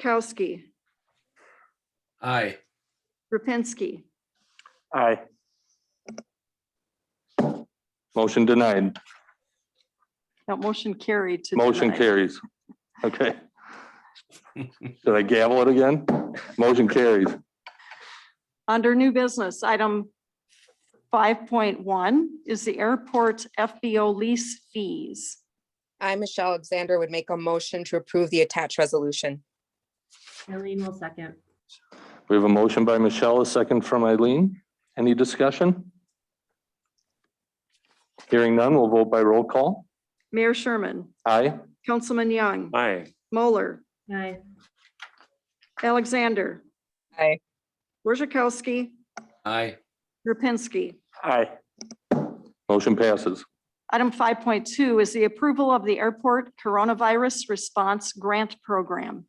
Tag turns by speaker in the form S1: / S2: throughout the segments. S1: Borzakowski,
S2: Aye.
S1: Rapinski,
S3: Aye. Motion denied.
S1: that motion carried to.
S3: Motion
S1: deny.
S3: carries. Okay. Should I gavel it again? Motion carries.
S1: Under new business, item five point one is the airport FBO lease fees.
S4: I, Michelle Alexander, would make a motion to approve the attached resolution.
S5: Eileen will second.
S3: We have a motion by Michelle, a second from Eileen. Any discussion? Hearing none, we'll vote by roll call.
S1: Mayor Sherman,
S3: Aye.
S1: Councilman Young,
S3: Aye.
S1: Moeller,
S5: Aye.
S1: Alexander,
S4: Aye.
S1: Borzakowski,
S2: Aye.
S1: Rapinski.
S3: Aye. Motion passes.
S1: Item five point two is the approval of the airport coronavirus response grant program.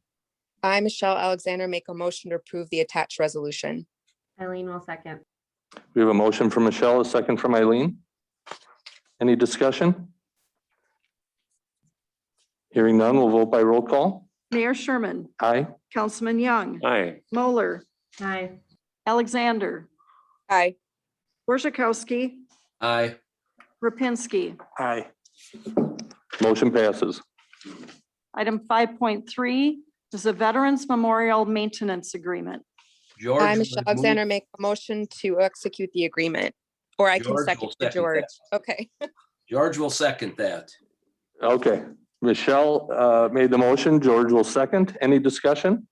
S4: I, Michelle Alexander, make a motion to approve the attached resolution.
S5: Eileen will second.
S3: We have a motion from Michelle, a second from Eileen. Any discussion? Hearing none, we'll vote by roll call.
S1: Mayor Sherman,
S3: Aye.
S1: Councilman Young,
S3: Aye.
S1: Moeller,
S5: Aye.
S1: Alexander,
S4: Aye.
S1: Borzakowski,
S2: Aye.
S1: Rapinski.
S3: Aye. Motion passes.
S1: Item five point three is a Veterans Memorial Maintenance Agreement.
S2: George.
S4: I,
S2: would
S4: Michelle
S2: move-
S4: Alexander, make a motion to execute the agreement, or I can
S2: George will
S4: second for
S2: second
S4: George.
S2: that.
S4: Okay.
S2: George will second that.
S3: Okay, Michelle uh, made the motion. George will second. Any discussion?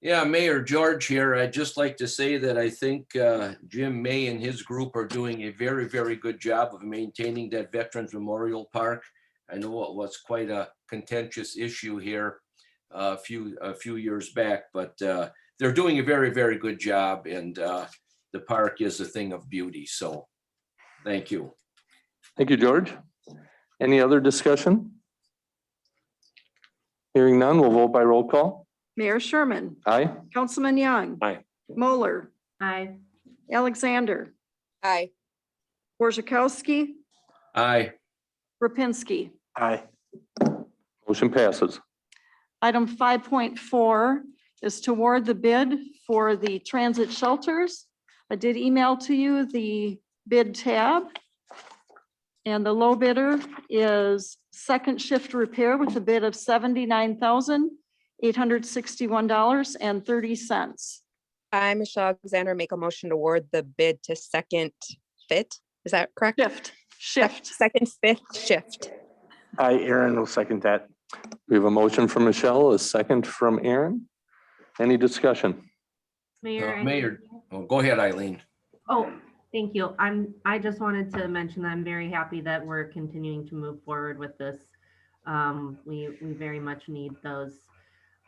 S2: Yeah, Mayor George here. I'd just like to say that I think uh, Jim May and his group are doing a very, very good job of maintaining that Veterans Memorial Park. I know it was quite a contentious issue here uh, a few, a few years back, but uh, they're doing a very, very good job and uh, the park is a thing of beauty. So, thank you.
S3: Thank you, George. Any other discussion? Hearing none, we'll vote by roll call.
S1: Mayor Sherman,
S3: Aye.
S1: Councilman Young.
S3: Aye.
S1: Moeller,
S5: Aye.
S1: Alexander,
S4: Aye.
S1: Borzakowski,
S2: Aye.
S1: Rapinski.
S3: Aye. Motion passes.
S1: Item five point four is toward the bid for the transit shelters. I did email to you the bid tab. And the low bidder is Second Shift Repair with a bid of seventy-nine thousand, eight hundred sixty-one dollars and thirty cents.
S4: I, Michelle Alexander, make a motion to award the bid to Second Fit. Is that correct?
S1: Shift,
S4: Sec-
S1: shift.
S4: Second Fit Shift.
S3: Aye, Aaron will second that. We have a motion from Michelle, a second from Aaron. Any discussion?
S5: Mayor.
S2: Uh,
S5: I
S2: Mayor.
S5: think-
S2: Well, go ahead, Eileen.
S5: Oh, thank you. I'm, I just wanted to mention that I'm very happy that we're continuing to move forward with this. Um, we, we very much need those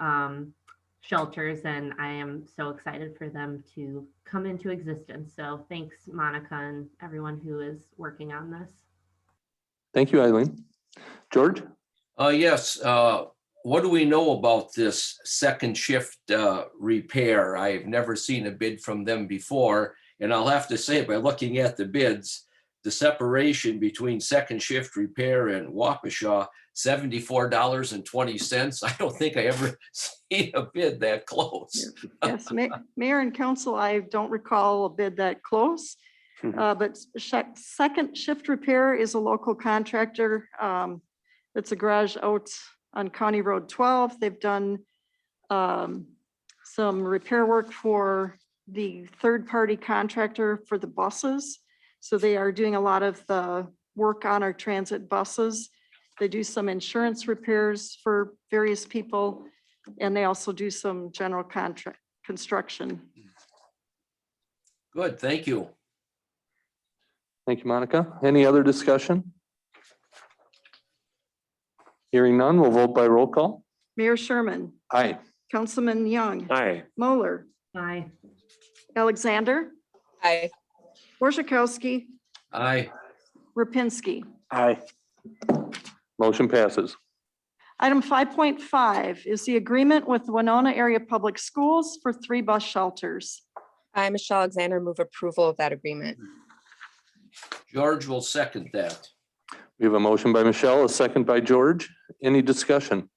S5: um, shelters and I am so excited for them to come into existence. So thanks Monica and everyone who is working on this.
S3: Thank you, Eileen. George?
S2: Uh, yes, uh, what do we know about this second shift, uh, repair? I've never seen a bid from them before. And I'll have to say, by looking at the bids, the separation between second shift repair and Waukesha, seventy-four dollars and twenty cents. I don't think I ever seen a bid that close.
S1: Yes, ma- mayor and council, I don't recall a bid that close.
S3: Mhm.
S1: Uh, but Sec- Second Shift Repair is a local contractor. Um, it's a garage out on County Road twelve. They've done um, some repair work for the third-party contractor for the buses. So they are doing a lot of the work on our transit buses. They do some insurance repairs for various people. And they also do some general contract, construction.
S2: Good, thank you.
S3: Thank you, Monica. Any other discussion? Hearing none, we'll vote by roll call.
S1: Mayor Sherman,
S3: Aye.
S1: Councilman Young,
S3: Aye.
S1: Moeller,
S5: Aye.
S1: Alexander,
S4: Aye.
S1: Borzakowski,
S2: Aye.
S1: Rapinski.
S3: Aye. Motion passes.
S1: Item five point five is the agreement with Winona Area Public Schools for three bus shelters.
S4: I, Michelle Alexander, move approval of that agreement.
S2: George will second that.
S3: We have a motion by Michelle, a second by George. Any discussion?